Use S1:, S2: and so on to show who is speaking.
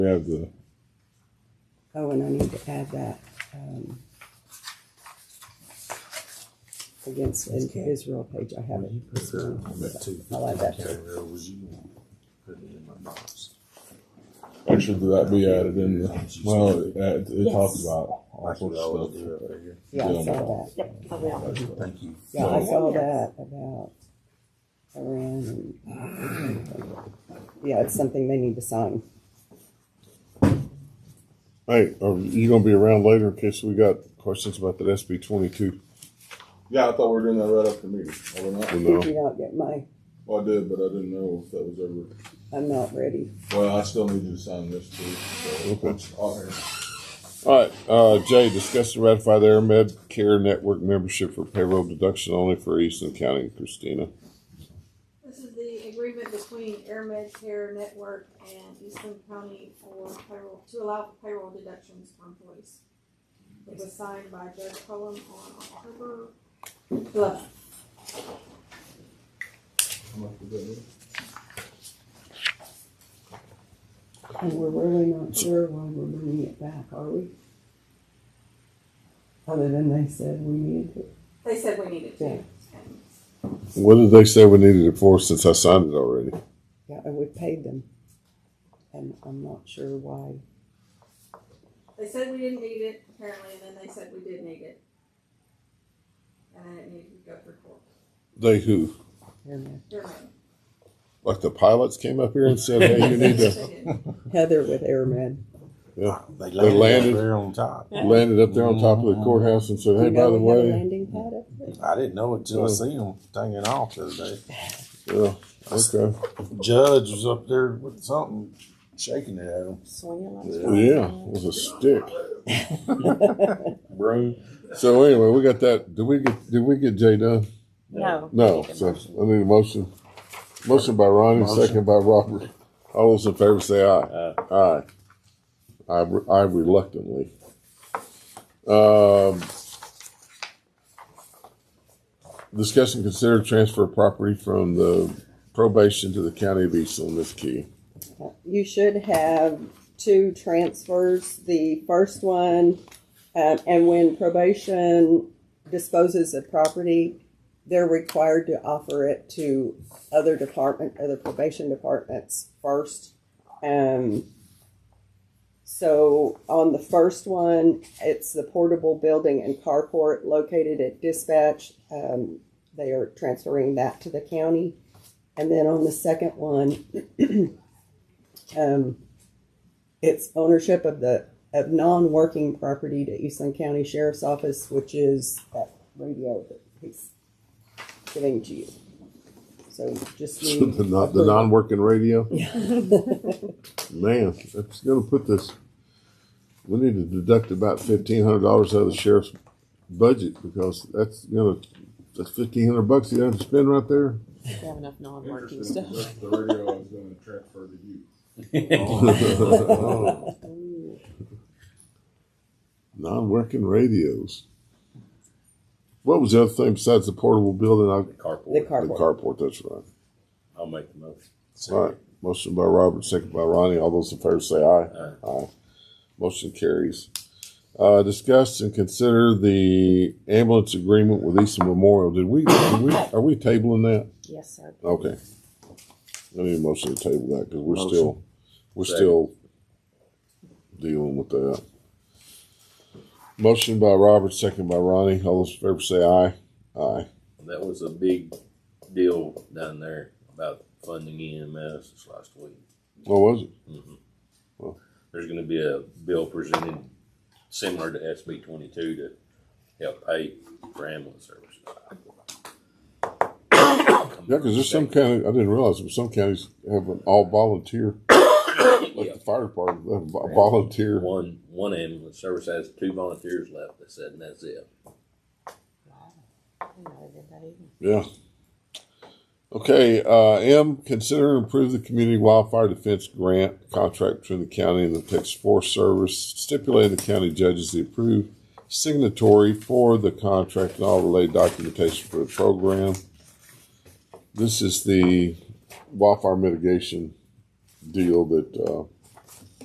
S1: We have the,
S2: Oh, and I need to add that, um, against Is- Israel page, I have it. this morning. I'll add that.
S1: actually, did that be added in the, well, it, it talked
S3: Yes.
S1: about all sorts of stuff.
S2: Yeah, I saw that.
S3: Yep, I will.
S4: Thank you.
S2: Yeah, I saw
S3: Yes.
S2: that about Iran and, yeah, it's something they need to sign.
S5: Hey, are you gonna be around later in case we got questions about that SB twenty-two?
S1: Yeah, I thought we were doing that right after meeting. Are we
S5: You
S1: not?
S2: Did
S5: know,
S2: you not get my,
S1: Well, I did, but I didn't know if that was ever,
S2: I'm not ready.
S1: well, I still need you to sign this too. so
S5: Okay.
S1: it's on here.
S5: all right, uh, Jay, discuss and ratify the AirMed Care Network membership for payroll deduction only for Easton County, Christina.
S6: This is the agreement between AirMed Care Network and Eastern County for payroll, to allow for payroll deductions for employees. It was signed by Judge Cullum on October eleventh.
S1: How much was that?
S2: And we're really not sure why we're bringing it back, are we? Other than they said we needed it.
S6: They said we needed
S2: Yeah.
S6: to. and
S5: What did they say we needed it for since I signed it already?
S2: Yeah, and we paid them. And I'm not sure why.
S6: They said we didn't need it apparently, and then they said we did need it. And then it needed to go through court.
S5: They who?
S2: Here and
S6: AirMed.
S5: Like the pilots came up here and said, hey, you need to,
S6: They did.
S2: there. Heather with Airmen.
S4: They
S5: landed.
S4: landed up there on top.
S5: landed up there on top of the courthouse and said, hey, by the
S2: we have a
S5: way.
S2: landing pad up there?
S4: I didn't know it till I
S5: Yeah.
S4: seen them hanging off the other day.
S5: Yeah, okay.
S4: Judge was up there with something, shaking it at him.
S3: Swinging like
S5: Yeah, it was a stick.
S4: Bro.
S5: So anyway, we got that. Did we get, did we get Jay done?
S3: No.
S5: No,
S3: Make a
S5: so
S3: motion.
S5: I need a motion. Motion by Ronnie, second by Robert. All those in favor say aye. Aye. I, re- I reluctantly. Um, discuss and consider transfer of property from the probation to the county of Eastland, Miss Key.
S2: You should have two transfers. The first one, um, and when probation disposes of property, they're required to offer it to other department, other probation departments first. Um, so on the first one, it's the portable building and carport located at dispatch. Um, they are transferring that to the county. And then on the second one, um, it's ownership of the of non-working property to Eastland County Sheriff's Office, which is that radio that he's giving to you. So just
S5: So
S2: need
S5: the non, the non-working radio? Man, that's gonna put this, we need to deduct about fifteen hundred dollars out of the sheriff's budget because that's gonna, that's fifteen hundred bucks you have to spend right there.
S3: We have enough non-working
S1: Interesting.
S3: stuff.
S1: That's The radio I was gonna transfer to you.
S5: Non-working radios. What was the other thing besides the portable building? I-
S2: the
S7: Carport.
S5: The
S2: carport.
S5: carport, that's right.
S7: I'll make the motion.
S5: All right, motion by Robert, second by Ronnie. All those in favor say aye. Aye. Motion carries. Uh, discuss and consider the ambulance agreement with Easton Memorial. Did we, did we, are we tabling that?
S3: Yes, sir.
S5: Okay. I need a motion to table that because we're
S4: Motion.
S5: still, we're
S7: Second.
S5: still dealing with that. Motion by Robert, second by Ronnie. All those in favor say aye. Aye.
S7: That was a big deal down there about funding EMS this last week. Mm-hmm.
S5: What Oh, was it?
S7: There's gonna be a bill presented similar to SB twenty-two to help pay for ambulance services.
S5: Yeah, because there's some county, I didn't realize, but some counties have an all volunteer, like the fire department, they have a vo- volunteer.
S7: One, one ambulance service has two volunteers left, they said, and that's it.
S3: I didn't know they did that either.
S5: Yeah. Okay, uh, M, consider and approve the community wildfire defense grant contract between the county and the Texas Forest Service, stipulating the county judges the approved signatory for the contract and all related documentation for the program. This is the wildfire mitigation deal that, uh,